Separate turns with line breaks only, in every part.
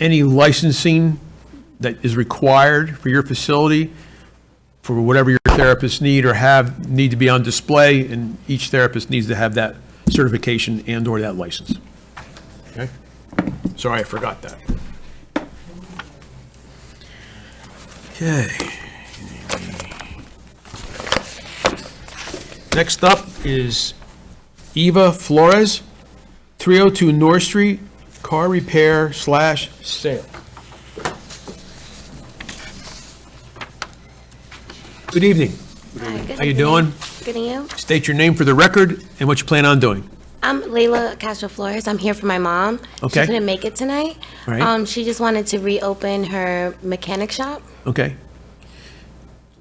any licensing that is required for your facility for whatever your therapists need or have, need to be on display, and each therapist needs to have that certification and/or that license. Okay? Sorry, I forgot that. Okay. Next up is Eva Flores, 302 North Street, car repair slash sale. Good evening. How you doing?
Good, and you?
State your name for the record and what you plan on doing.
I'm Layla Castro Flores. I'm here for my mom.
Okay.
She couldn't make it tonight.
All right.
Um, she just wanted to reopen her mechanic shop
Okay?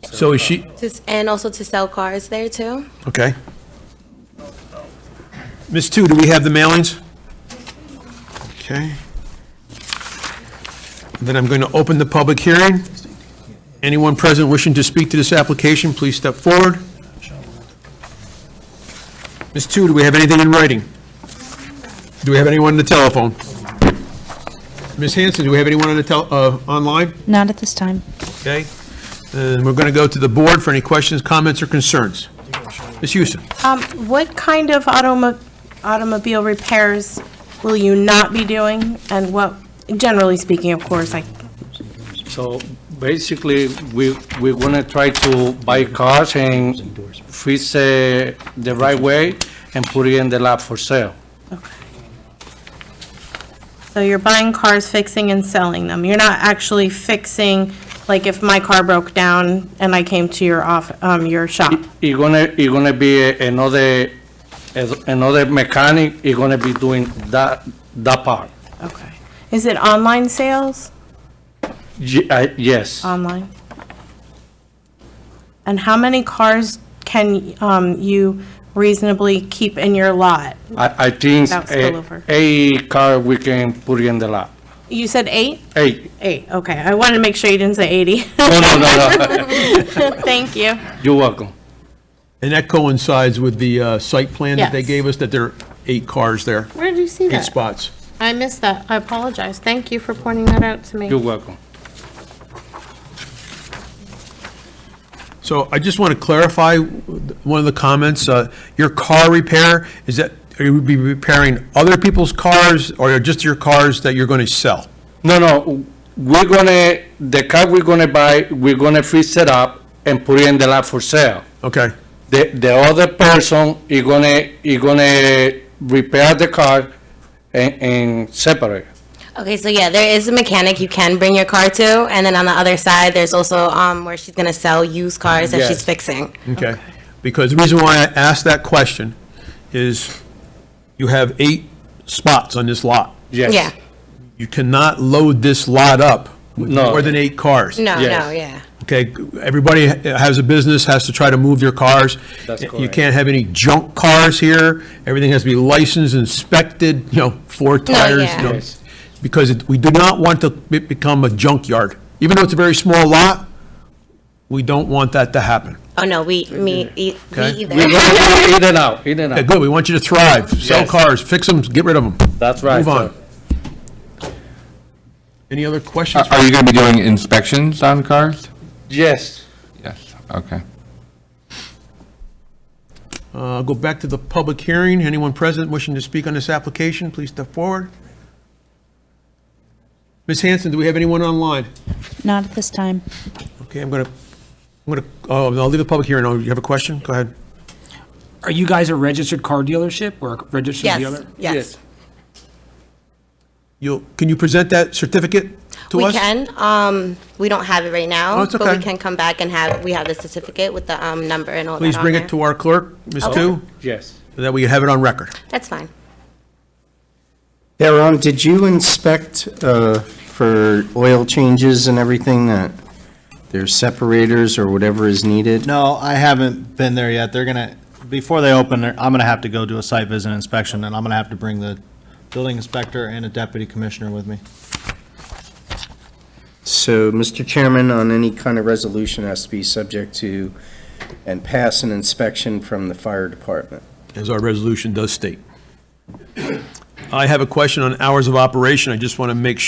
So is she,
to, s- and also to sell cars there too.
okay. Ms. Two, do we have the mailings? Okay. Then I'm going to open the public hearing. Anyone present wishing to speak to this application, please step forward. Ms. Two, do we have anything in writing? Do we have anyone on the telephone? Ms. Hanson, do we have anyone on the tel, uh, online?
Not at this time.
Okay, and we're going to go to the board for any questions, comments, or concerns. Ms. Houston?
Um, What kind of automo- automobile repairs will you not be doing, and what, generally speaking, of course, I
So basically, we, we're gonna try to buy cars and fix it the right way and put it in the lab for sale.
so you're buying cars, fixing and selling them, you're not actually fixing, like if my car broke down and I came to your off, um, your shop,
It's gonna, it's gonna be uh, another, uh, another mechanic, it's gonna be doing that, that part.
okay. Is it online sales?
Ye- I- Yes,
Online? And how many cars can um, you reasonably keep in your lot?
I, I think
Without
eh,
spillover.
eight car we can put it in the lab,
You said eight?
eight.
Eight, okay, I wanted to make sure you didn't say 80.
No, no, no, no,
Thank you.
you're welcome.
And that coincides with the uh, site plan that they
Yes.
gave us, that there are eight cars there,
Where did you see
eight
that?
spots.
I missed that. I apologize. Thank you for pointing that out to
You're
me.
welcome.
So I just want to clarify one of the comments, uh, your car repair, is that, are you be repairing other people's cars, or just your cars that you're going to sell?
No, no, we're gonna, the car we're gonna buy, we're gonna fix it up and put it in the lab for sale.
Okay,
The, the other person is gonna, is gonna repair the car and, and separate.
Okay, so yeah, there is a mechanic you can bring your car to, and then on the other side, there's also um, where she's gonna sell used cars that she's
Yes.
fixing.
okay. Because the reason why I asked that question is you have eight spots on this lot.
Yes.
Yeah.
You cannot load this lot up with
No.
more than eight cars.
No,
Yes.
no, yeah.
Okay, everybody has a business, has to try to move their cars.
That's
You
correct.
can't have any junk cars here. Everything has to be licensed, inspected, you know, four tires,
yeah.
you know.
Yes.
Because it- we do not want to be- become a junkyard. Even though it's a very small lot, we don't want that to happen.
Oh no, we me, e-
Okay.
me
We're
either.
gonna do in and out, in and
Okay,
out.
good, we want you to thrive, sell
Yes.
cars, fix them, get rid of them.
That's right,
Move
sir.
on. Any other questions?
Are are you going to be doing inspections on cars?
Yes.
Yes. Okay.
Uh, I'll go back to the public hearing. Anyone present wishing to speak on this application, please step forward. Ms. Hanson, do we have anyone online?
Not at this time.
Okay, I'm going to, I'm going to, oh, I'll leave the public hearing. Oh, you have a question? Go ahead.
Are you guys a registered car dealership or a registered
Yes,
dealer?
yes.
You'll, can you present that certificate to
We
us?
can. Um, we don't have it right now,
Oh, it's
but
okay.
we can come back and have we have the certificate with the um, number and all that.
Please
on
bring
there.
it to our clerk, Ms. Tu,
Yes.
so that we have it on record.
That's fine.
Aaron, did you inspect uh, for oil changes and everything that there's separators or whatever is needed?
No, I haven't been there yet. They're gonna, before they open, they're- I'm gonna have to go do a site visit inspection, and I'm gonna have to bring the building inspector and a deputy commissioner with me.
So, Mr. Chairman, on any kind of resolution has to be subject to and pass an inspection from the fire department.
as our resolution does state. I have a question on hours of operation. I just want to make sure